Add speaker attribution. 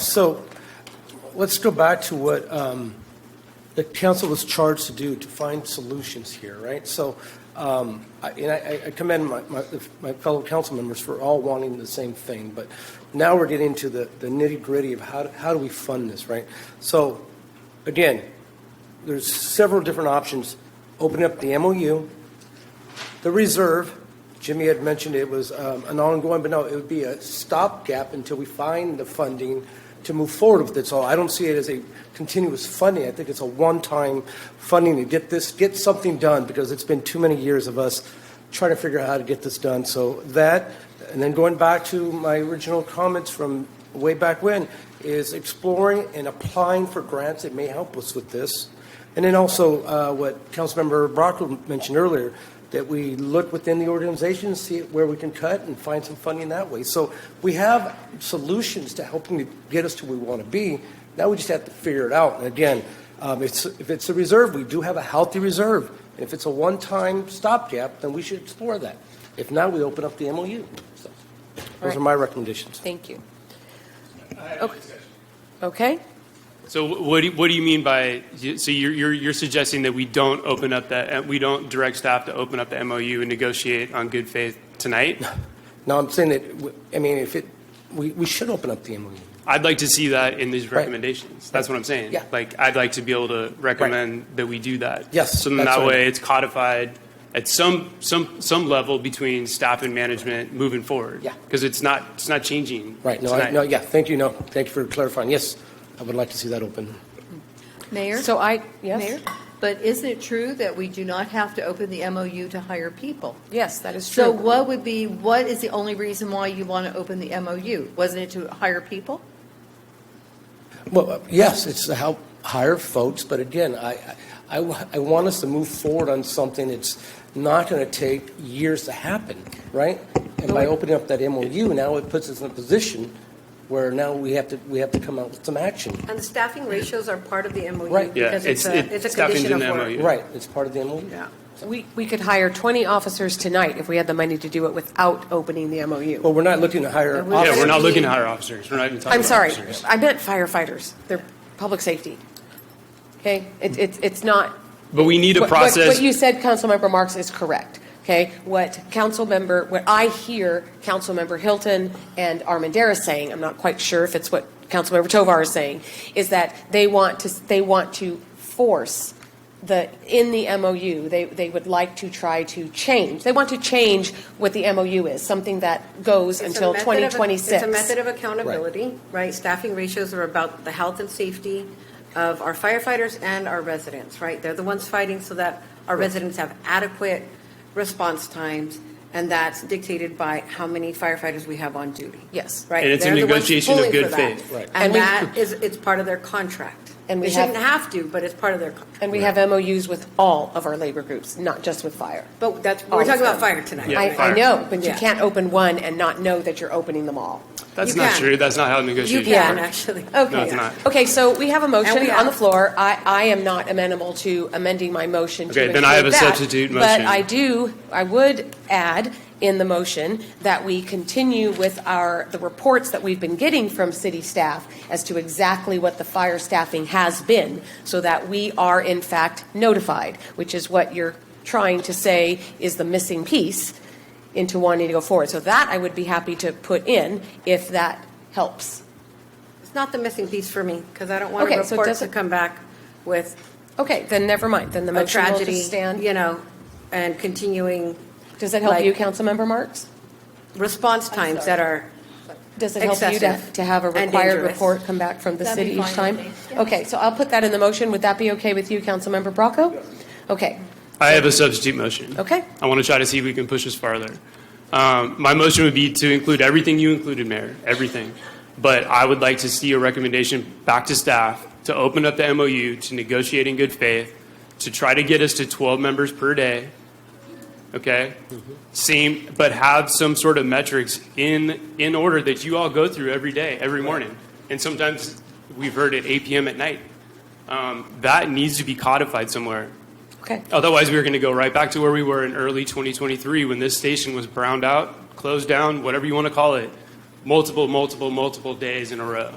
Speaker 1: So let's go back to what um, the council was charged to do, to find solutions here, right? So, um, I- and I I commend my- my my fellow council members for all wanting the same thing, but now we're getting to the the nitty-gritty of how do- how do we fund this, right? So, again, there's several different options. Open up the MOU, the reserve, Jimmy had mentioned it was um, an ongoing, but no, it would be a stopgap until we find the funding to move forward with it. So I don't see it as a continuous funding. I think it's a one-time funding to get this, get something done, because it's been too many years of us trying to figure out how to get this done. So that, and then going back to my original comments from way back when, is exploring and applying for grants that may help us with this. And then also, uh, what Councilmember Brockle mentioned earlier, that we look within the organization, see where we can cut and find some funding that way. So we have solutions to helping to get us to where we want to be. Now we just have to figure it out. And again, um, it's, if it's a reserve, we do have a healthy reserve. And if it's a one-time stopgap, then we should explore that. If not, we open up the MOU. So Those
Speaker 2: Right.
Speaker 1: are my recommendations.
Speaker 2: Thank you. Okay. Okay,
Speaker 3: So wh- what do, you- what do you mean by, so you're, you're, you're suggesting that we don't open up that, we don't direct staff to open up the MOU and negotiate on good faith tonight?
Speaker 1: Now, I'm saying that, w- I mean, if it, we, we should open up the E. MOU.
Speaker 3: I'd like to see that in these
Speaker 1: Right.
Speaker 3: recommendations. That's what I'm saying.
Speaker 1: Yeah.
Speaker 3: Like, I'd like to be able to recommend that we do that.
Speaker 1: Yes,
Speaker 3: So then
Speaker 1: that's
Speaker 3: that
Speaker 1: what I-
Speaker 3: way it's codified at some, some, some level between staff and management moving forward.
Speaker 1: Yeah.
Speaker 3: Because it's not, it's not changing.
Speaker 1: Right, no, I-
Speaker 3: tonight.
Speaker 1: no, yeah, thank you, no, thank you for clarifying. Yes, I would like to see that open.
Speaker 4: Mayor?
Speaker 2: so I, yes,
Speaker 4: Mayor? But isn't it true that we do not have to open the MOU to hire people?
Speaker 2: yes, that is
Speaker 4: So
Speaker 2: true.
Speaker 4: what would be, what is the only reason why you want to open the MOU? Wasn't it to hire people?
Speaker 1: Well, uh, yes, it's to help hire folks, but again, I, I- I, wa- I want us to move forward on something that's not going to take years to happen, right? And by opening up that MOU, now it puts us in a position where now we have to, we have to come out with some action.
Speaker 5: And the staffing ratios are part of the MOU
Speaker 1: Right.
Speaker 3: Yeah,
Speaker 5: because it's
Speaker 3: it's-
Speaker 5: a,
Speaker 3: it-
Speaker 5: it's a
Speaker 3: staffing's
Speaker 5: condition of
Speaker 3: in the
Speaker 5: work.
Speaker 3: MOU.
Speaker 1: Right, it's part of the E. MOU.
Speaker 5: Yeah.
Speaker 2: We, we could hire 20 officers tonight if we had the money to do it without opening the MOU.
Speaker 3: Oh,
Speaker 1: But we're not looking to hire
Speaker 5: Yeah,
Speaker 3: Yeah,
Speaker 5: we're
Speaker 3: we're
Speaker 1: officers.
Speaker 3: not looking to hire officers. We're not even talking
Speaker 2: I'm
Speaker 3: about
Speaker 2: sorry,
Speaker 3: officers.
Speaker 2: I meant firefighters, they're public safety. Okay, It- it's, it's not.
Speaker 3: But we need a
Speaker 2: What- what-
Speaker 3: process.
Speaker 2: What you said, Councilmember Marks, is correct, okay? What Councilmember, what I hear Councilmember Hilton and Armandaris saying, I'm not quite sure if it's what Councilmember Tovar is saying, is that they want to, they want to force the, in the MOU, they, they would like to try to change, they want to change what the MOU is, something that goes
Speaker 5: It's a
Speaker 2: until
Speaker 5: method of-
Speaker 2: 2026.
Speaker 5: It's a method of accountability, right? Staffing ratios are about the health and safety of our firefighters and our residents, right? They're the ones fighting so that our residents have adequate response times, and that's dictated by how many firefighters we have on duty.
Speaker 2: Yes.
Speaker 5: Right?
Speaker 3: And it's a
Speaker 5: They're the ones
Speaker 3: negotiation of
Speaker 5: pulling
Speaker 3: good
Speaker 5: for that.
Speaker 3: faith. Right.
Speaker 2: And
Speaker 5: And
Speaker 2: we-
Speaker 5: that is, it's part of their contract.
Speaker 2: And we
Speaker 5: They
Speaker 2: have-
Speaker 5: shouldn't have to, but it's part of their, con-
Speaker 2: And we have MOUs with all of our labor groups, not just with fire.
Speaker 5: but that's,
Speaker 2: All
Speaker 5: we're
Speaker 2: of
Speaker 5: talking about
Speaker 2: them.
Speaker 5: fire tonight.
Speaker 3: Yeah,
Speaker 2: I,
Speaker 5: right?
Speaker 2: I
Speaker 3: fire.
Speaker 2: know, but you
Speaker 5: Yeah.
Speaker 2: can't open one and not know that you're opening them all.
Speaker 3: That's
Speaker 5: You
Speaker 3: not
Speaker 5: can.
Speaker 3: true. That's not how
Speaker 5: You
Speaker 3: negotiations
Speaker 5: can,
Speaker 3: work.
Speaker 5: actually.
Speaker 3: No, it's not.
Speaker 2: Okay, so we have a
Speaker 5: And
Speaker 2: motion
Speaker 5: we
Speaker 2: on the
Speaker 5: have-
Speaker 2: floor. I, I am not amenable to amending my motion to
Speaker 3: Okay, then
Speaker 2: include
Speaker 3: I have a
Speaker 2: that,
Speaker 3: substitute
Speaker 2: But
Speaker 3: motion.
Speaker 2: I do, I would add in the motion that we continue with our, the reports that we've been getting from city staff as to exactly what the fire staffing has been, so that we are in fact notified, which is what you're trying to say is the missing piece into wanting to go forward. So that I would be happy to put in if that helps.
Speaker 5: It's not the missing piece for me, because I don't want
Speaker 2: Okay,
Speaker 5: a
Speaker 2: so it
Speaker 5: report to
Speaker 2: doesn't-
Speaker 5: come back with
Speaker 2: Okay, then never mind, then the
Speaker 5: a
Speaker 2: motion will
Speaker 5: tragedy,
Speaker 2: just stand.
Speaker 5: you know, and continuing
Speaker 2: Does that help you,
Speaker 5: like-
Speaker 2: Councilmember Marks?
Speaker 5: response times that are,
Speaker 2: Does it help you to,
Speaker 5: Excessive
Speaker 2: to have a
Speaker 5: and
Speaker 2: required
Speaker 5: dangerous.
Speaker 2: report come back from the
Speaker 4: That'd
Speaker 2: city
Speaker 4: be
Speaker 2: each
Speaker 4: fine,
Speaker 2: time?
Speaker 4: I think. Yeah.
Speaker 2: Okay, so I'll put that in the motion, would that be okay with you, Councilmember Bracco? Okay,
Speaker 3: I have a substitute motion.
Speaker 2: Okay.
Speaker 3: I want to try to see if we can push this farther. Um, my motion would be to include everything you included, Mayor, everything. But I would like to see a recommendation back to staff to open up the MOU to negotiate in good faith, to try to get us to 12 members per day. Okay? Same, but have some sort of metrics in, in order that you all go through every day, every morning. And sometimes we've heard at 8 p.m. at night. Um, that needs to be codified somewhere.
Speaker 2: okay,
Speaker 3: Otherwise, we were going to go right back to where we were in early 2023 when this station was browned out, closed down, whatever you want to call it, multiple, multiple, multiple days in a row.